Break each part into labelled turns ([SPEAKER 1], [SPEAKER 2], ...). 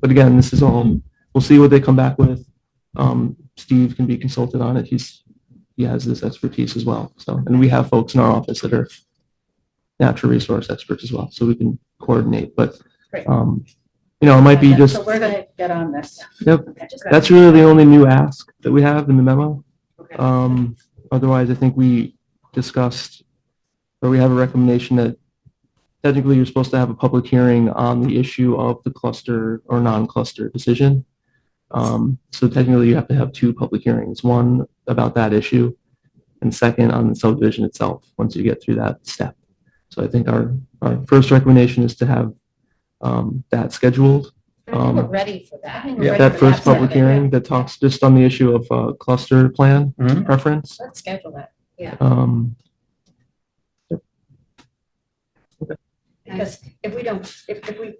[SPEAKER 1] But again, this is all, we'll see what they come back with. Um, Steve can be consulted on it. He's, he has this expertise as well. So, and we have folks in our office that are natural resource experts as well, so we can coordinate. But,
[SPEAKER 2] Great.
[SPEAKER 1] um, you know, it might be just,
[SPEAKER 2] So we're going to get on this.
[SPEAKER 1] Yep.
[SPEAKER 2] Okay.
[SPEAKER 1] that's really the only new ask that we have in the memo.
[SPEAKER 2] Okay.
[SPEAKER 1] Um, otherwise, I think we discussed, or we have a recommendation that technically you're supposed to have a public hearing on the issue of the cluster or non-cluster decision. Um, so technically you have to have two public hearings, one about that issue and second on the subdivision itself, once you get through that step. So I think our, our first recommendation is to have, um, that scheduled
[SPEAKER 2] I think we're
[SPEAKER 1] um,
[SPEAKER 2] ready for that.
[SPEAKER 3] Yeah.
[SPEAKER 1] that first public hearing that talks just on the issue of uh, cluster plan
[SPEAKER 3] Mhm.
[SPEAKER 1] preference.
[SPEAKER 2] Let's schedule that. Yeah.
[SPEAKER 1] Um,
[SPEAKER 2] Because if we don't, if, if we,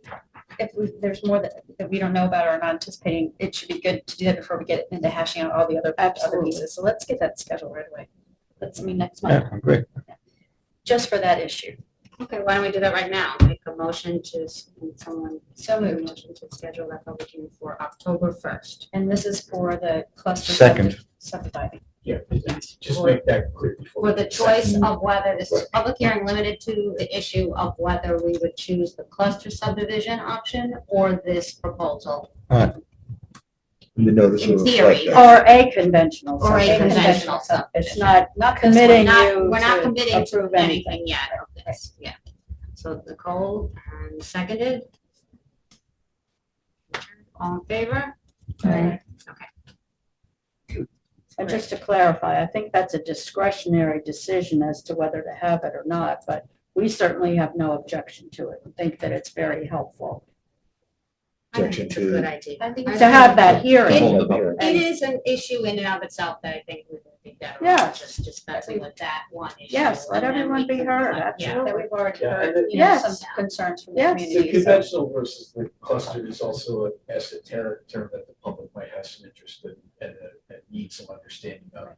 [SPEAKER 2] if we, there's more that, that we don't know about or are not anticipating, it should be good to do that before we get into hashing out all the other, other pieces. So let's get that scheduled right away. Let's, I mean, next month,
[SPEAKER 3] Yeah, great.
[SPEAKER 2] just for that issue.
[SPEAKER 4] Okay, why don't we do that right now? Make a motion to, s- someone,
[SPEAKER 2] So
[SPEAKER 4] make a
[SPEAKER 2] moved.
[SPEAKER 4] motion to schedule that public hearing for October first.
[SPEAKER 2] And this is for the cluster.
[SPEAKER 3] Second.
[SPEAKER 2] subdi- Subdividing.
[SPEAKER 5] Yeah, just make that clear. before
[SPEAKER 4] For the choice
[SPEAKER 5] second.
[SPEAKER 4] of whether, this is public hearing limited to the issue of whether we would choose the cluster subdivision option or this proposal.
[SPEAKER 5] And The notice will
[SPEAKER 4] in theory,
[SPEAKER 5] reflect that.
[SPEAKER 2] Or a conventional.
[SPEAKER 4] Or a
[SPEAKER 2] subdivision.
[SPEAKER 4] conventional
[SPEAKER 2] It's
[SPEAKER 4] subdivision.
[SPEAKER 2] not, not
[SPEAKER 4] Because we're
[SPEAKER 2] committing
[SPEAKER 4] not-
[SPEAKER 2] you.
[SPEAKER 4] We're not
[SPEAKER 2] to
[SPEAKER 4] committing to
[SPEAKER 2] approve
[SPEAKER 4] anything yet of this, yeah. So Nicole, um, seconded. All in favor?
[SPEAKER 2] Right.
[SPEAKER 4] Okay.
[SPEAKER 2] And just to clarify, I think that's a discretionary decision as to whether to have it or not, but we certainly have no objection to it. and Think that it's very helpful
[SPEAKER 4] I think
[SPEAKER 5] Objection
[SPEAKER 4] it's a
[SPEAKER 5] to-
[SPEAKER 4] good idea. I think it's
[SPEAKER 2] to
[SPEAKER 4] a
[SPEAKER 2] have
[SPEAKER 4] good
[SPEAKER 2] that
[SPEAKER 5] To
[SPEAKER 2] hearing.
[SPEAKER 5] hold up here.
[SPEAKER 4] It is an issue in and of itself that I think we can think that
[SPEAKER 2] Yeah.
[SPEAKER 4] around, just dispensing with that one issue.
[SPEAKER 2] Yes, let
[SPEAKER 4] and then
[SPEAKER 2] everyone
[SPEAKER 4] we
[SPEAKER 2] be
[SPEAKER 4] can,
[SPEAKER 2] heard,
[SPEAKER 4] uh, yeah.
[SPEAKER 2] absolutely. we've already
[SPEAKER 6] Yeah, and
[SPEAKER 2] you know, Yes.
[SPEAKER 4] some
[SPEAKER 2] concerns from
[SPEAKER 1] the Yes.
[SPEAKER 6] The conventional versus the cluster is also an esoteric term that the public might have some interest in and, uh, and need some understanding of.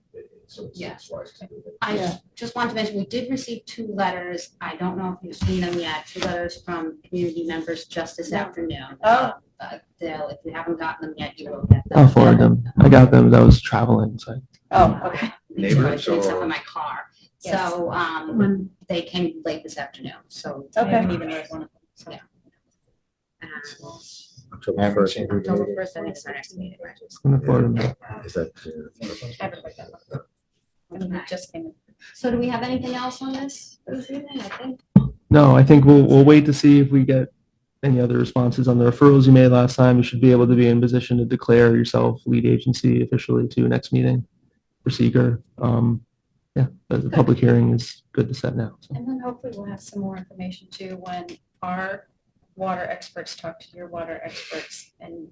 [SPEAKER 6] So it's- it's wise to do it.
[SPEAKER 4] I
[SPEAKER 2] Yeah.
[SPEAKER 4] ju- just want to mention, we did receive two letters. I don't know if you've seen them yet, two letters from community members just this
[SPEAKER 2] No.
[SPEAKER 4] afternoon.
[SPEAKER 2] Oh.
[SPEAKER 4] Uh, They'll, if you haven't gotten them yet, you will get them.
[SPEAKER 1] I'll forward them. I got them. That was traveling. So
[SPEAKER 2] Oh, okay.
[SPEAKER 5] Neighbors
[SPEAKER 4] Sorry, it's up
[SPEAKER 5] or-
[SPEAKER 4] in my car.
[SPEAKER 2] Yes.
[SPEAKER 4] So, um, they came late this afternoon, so. I
[SPEAKER 2] Okay.
[SPEAKER 4] haven't even read one of them, so.
[SPEAKER 2] Yeah.
[SPEAKER 4] Um,
[SPEAKER 5] October first.
[SPEAKER 4] October first, I think it's our next meeting, right?
[SPEAKER 1] I'm gonna forward them.
[SPEAKER 5] Is that clear?
[SPEAKER 4] Everybody got one.
[SPEAKER 2] And we just came in.
[SPEAKER 4] So do we have anything else on this? this evening? I think
[SPEAKER 1] No, I think we'll, we'll wait to see if we get any other responses on the referrals you made last time. You should be able to be in position to declare yourself lead agency officially to next meeting for seeker. Um, yeah, but the public hearing is good to set now. So
[SPEAKER 2] And then hopefully we'll have some more information too when our water experts talk to your water experts and.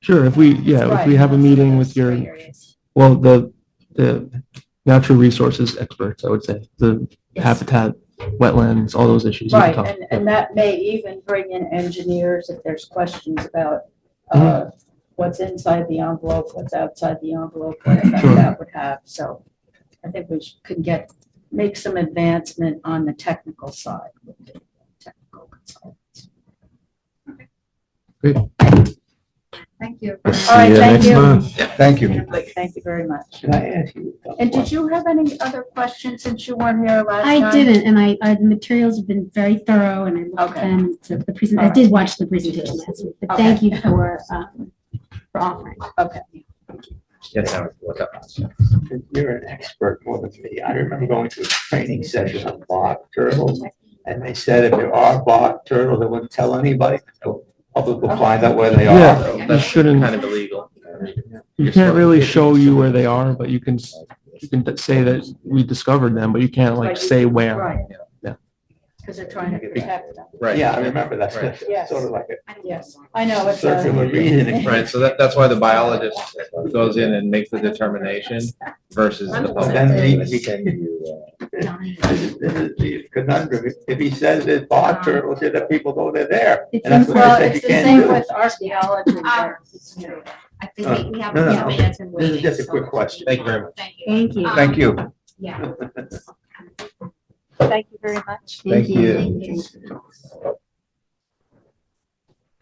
[SPEAKER 1] Sure, if we, yeah, if we
[SPEAKER 2] Right,
[SPEAKER 1] have a
[SPEAKER 2] those-
[SPEAKER 1] meeting
[SPEAKER 2] those
[SPEAKER 1] with
[SPEAKER 2] three
[SPEAKER 1] your,
[SPEAKER 2] areas.
[SPEAKER 1] well, the, the natural resources experts, I would say, the
[SPEAKER 2] Yes.
[SPEAKER 1] habitat, wetlands, all those issues. we can
[SPEAKER 2] Right,
[SPEAKER 1] talk.
[SPEAKER 2] and, and that may even bring in engineers if there's questions about, uh,
[SPEAKER 1] Mm-hmm.
[SPEAKER 2] what's inside the envelope, what's outside the envelope, what effect
[SPEAKER 1] Sure.
[SPEAKER 2] that would have, so. I think we sh- could get, make some advancement on the technical side. with the technical consultants.
[SPEAKER 1] Great.
[SPEAKER 2] Thank you.
[SPEAKER 3] We'll
[SPEAKER 2] All right,
[SPEAKER 3] see you
[SPEAKER 2] thank
[SPEAKER 3] next
[SPEAKER 2] you.
[SPEAKER 3] month. Thank you.
[SPEAKER 2] Thank you very much.
[SPEAKER 7] Can I ask you?
[SPEAKER 2] And did you have any other questions since you weren't here last time?
[SPEAKER 8] I didn't, and I, I, the materials have been very thorough, and I looked
[SPEAKER 2] Okay.
[SPEAKER 8] at them, so the present, I
[SPEAKER 2] Alright.
[SPEAKER 8] did watch the presentation last week, but
[SPEAKER 2] Okay.
[SPEAKER 8] thank you for, um, for offering.
[SPEAKER 2] Okay.
[SPEAKER 5] Yes, I would look up.
[SPEAKER 7] You're an expert more than me. I remember going to a training session on bark turtles. And they said if there are bark turtles, they wouldn't tell anybody. The public will find out where they
[SPEAKER 1] Yeah.
[SPEAKER 7] are.
[SPEAKER 1] You shouldn't,
[SPEAKER 9] of illegal.
[SPEAKER 1] you can't really show you where they are, but you can, s- you can say that we discovered them, but you can't like
[SPEAKER 2] Right.
[SPEAKER 1] say where.
[SPEAKER 2] Right.
[SPEAKER 1] Yeah.
[SPEAKER 2] Because they're trying to protect them.
[SPEAKER 9] Right.
[SPEAKER 7] Yeah, I remember that. That's
[SPEAKER 2] Yes.
[SPEAKER 7] Sort of like
[SPEAKER 4] I don't
[SPEAKER 2] Yes.
[SPEAKER 4] know.
[SPEAKER 2] I know,
[SPEAKER 7] a
[SPEAKER 2] it's a.
[SPEAKER 7] circular reasoning.
[SPEAKER 9] Right, so that, that's why the biologist goes in and makes the determination versus the
[SPEAKER 7] Well,
[SPEAKER 9] public.
[SPEAKER 7] then we, we can,
[SPEAKER 5] Send you, uh,
[SPEAKER 4] Donnie.
[SPEAKER 7] this is, this is the conundrum. If- If he says there's bark turtles, here, the people know they're there.
[SPEAKER 8] It's
[SPEAKER 7] And that's
[SPEAKER 8] in-
[SPEAKER 7] what I
[SPEAKER 2] Well,
[SPEAKER 7] said you
[SPEAKER 2] Uh-huh. it's the
[SPEAKER 7] can't
[SPEAKER 2] same
[SPEAKER 7] do.
[SPEAKER 2] with archaeology.
[SPEAKER 4] Ah,
[SPEAKER 2] but-
[SPEAKER 4] it's true. I think we- we have.
[SPEAKER 7] Uh, No, no,
[SPEAKER 4] yeah,
[SPEAKER 7] no.
[SPEAKER 4] that's in
[SPEAKER 7] This is just a
[SPEAKER 4] waiting, so-
[SPEAKER 7] quick question.
[SPEAKER 9] Thank you very much.
[SPEAKER 4] Thank you.
[SPEAKER 8] Thank you.
[SPEAKER 4] Um,
[SPEAKER 3] Thank you.
[SPEAKER 4] Yeah.
[SPEAKER 2] Thank you very much.
[SPEAKER 3] Thank you.
[SPEAKER 4] Thank you.